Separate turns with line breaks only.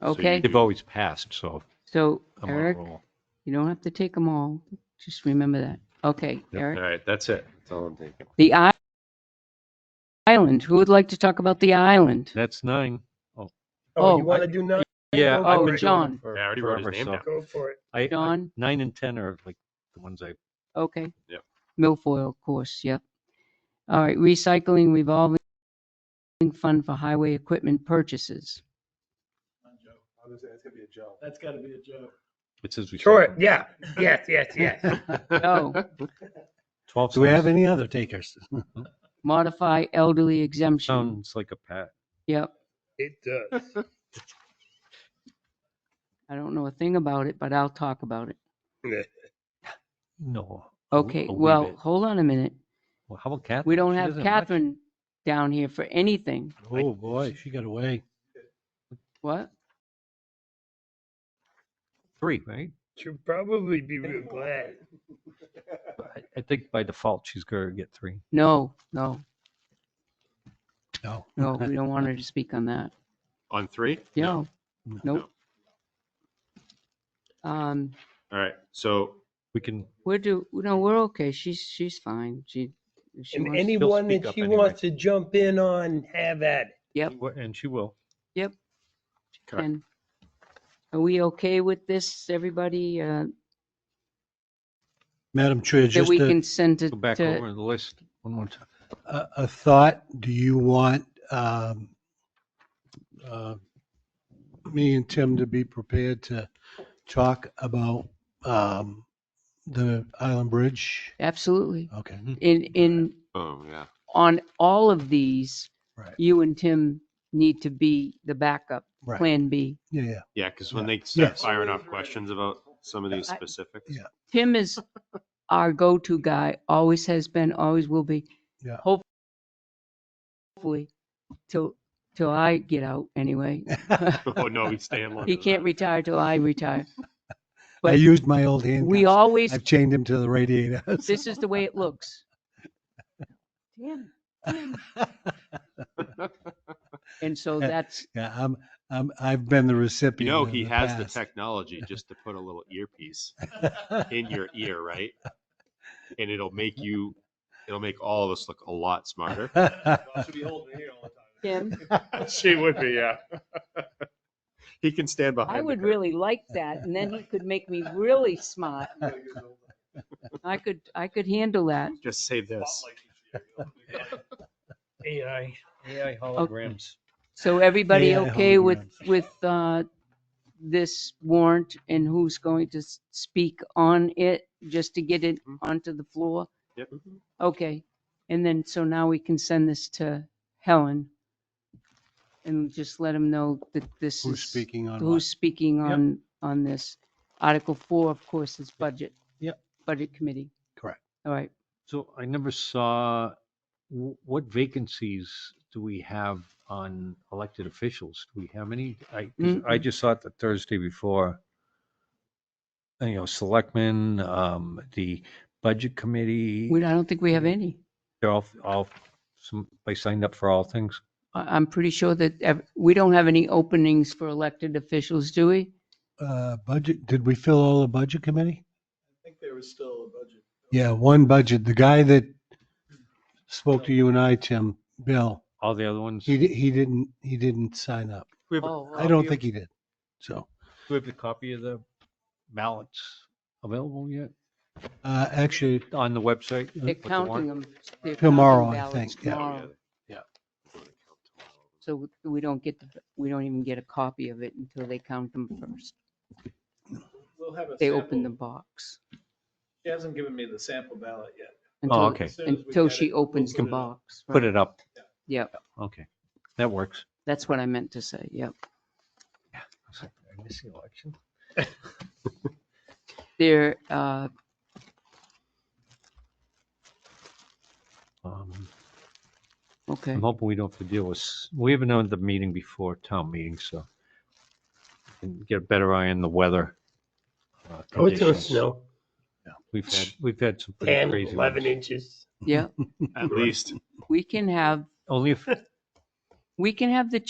So you-
Okay.
They've always passed, so
So
I'm on a
Eric,
roll.
you don't have to take them all. Just remember that. Okay, Eric.
All right, that's it. That's all I'm thinking.
The i- island. Who would like to talk about the island?
That's nine.
Oh,
Oh, you want to do nine?
Yeah,
Go
I
Oh,
for it.
John.
I already wrote his
Forever
name down.
sucked.
Go for it.
I- I-
John?
Nine and 10 are like the ones I,
Okay.
Yep.
Milfoil, of course, yep. All right, recycling revolving fund for highway equipment purchases.
That's gotta be a joke.
it says we.
Sure, yeah, yes, yes, yes.
No.
12
Do we have
sounds-
any other takers?
Modify elderly
Um,
exemption.
Sounds like a pat.
Yep.
It uh, does.
I don't know a thing about it, but I'll talk about it.
No. a w-
Okay,
Oh, a wee
well,
bit.
hold on a minute.
Well, How about Catherine?
We don't
she
have
doesn't watch.
Catherine down here for anything.
Oh, boy, she got away.
What?
Three, right?
Should probably be real glad.
I- I think by default, she's going to get three.
No, no,
No.
no, we don't want her to speak on that.
On three?
No,
No.
nope. Um,
All right, so
We can,
we're do, no, we're okay. She's, she's fine. She, if she
And
wants-
anyone
speak
that
up
she
anyway.
wants to jump in on, have at it.
and she will.
Okay.
And are we okay with this, everybody, uh,
Madam Chair,
that
just
we
a,
can send it
Go back
to,
over the list one more time.
a a thought. Do you want um, uh, me and Tim to be prepared to talk about um, the Island Bridge?
absolutely.
Okay.
Mm-hmm.
In, in,
Oh, yeah.
on all of these,
Right.
you and Tim need to be the backup,
Right.
Plan B.
Yeah, yeah.
Yeah, because when they start
Yes.
firing off questions about some of these
I-
specifics.
Yeah.
Tim is our go-to guy, always has been, always will be.
Yeah.
Hope- Hopefully, till, till I get out anyway.
Oh, no, he's staying longer.
He
than
can't
that.
retire till I retire.
I
But-
used my old hand.
We always
I've chained him to the radiator.
this is the way it looks. Tim, Tim. And so that's,
Yeah, I'm, I'm, I've been the
You
recipient.
know,
in
he has the
past.
technology just to put a little earpiece in your ear, right? And it'll make you, it'll make all of us look a lot smarter.
Should be holding here all the time.
Tim,
She would be, yeah. He can stand behind.
I
the
would
curtain.
really like that. And then he could make me really smart. I could, I could handle that.
Just say this.
AI, AI holograms.
So everybody
AI
okay with,
holograms.
with, uh, this warrant and who's going to s- speak on it, just to get it
Mm-hmm.
onto the floor?
Yep.
Okay. And then, so now we can send this to Helen and just let him know that this is.
Who's speaking on
who's
what?
speaking
Yep.
on, on this. Article four, of course, is budget.
Yep.
Budget committee.
Correct.
All right.
So I never saw, wh- what vacancies do we have on elected officials? Do we have any? I, 'cause I just saw it the Thursday before. Uh, You know, selectmen, um, the budget committee,
We, I don't think we have
Mm-hmm.
any.
they're all, all, some, they signed up for all things.
I, I'm pretty sure that ev- we don't have any openings for elected officials, do we?
Uh, budget, did we fill all the budget committee?
I think there was still a budget.
Yeah, one budget. The guy that spoke to you and I, Tim, Bill,
All the other ones,
he,
do
di- he didn't, he didn't sign up.
We have a-
Oh,
I don't think he did. So,
we have the copy of the ballots available yet
uh, actually,
on the website?
They're
with the warrant?
counting them. They're counting
Tomorrow, I
ballots
think, yeah.
tomorrow.
Yeah.
So we don't get, the we don't even get a copy of it until they count them first.
We'll have a
They open the
sample.
box.
She hasn't given me the sample ballot yet.
until-
Oh, okay.
As soon as we
Until
get it,
she
we'll
opens the
put it up.
box.
Put it up.
Yep.
Okay, that works.
That's what I meant to say. Yep.
I was like, Did I miss the election?
There, uh,
Um,
okay.
I'm hoping we don't have to deal with, s- we have another meeting before town meeting, so we can get a better eye on the weather. uh,
Oh, it's gonna
conditions.
snow,
We've had, we've had some pretty
10,
crazy
11
ones.
inches.
Yeah,
At least.
we can have,
Only if
we can have the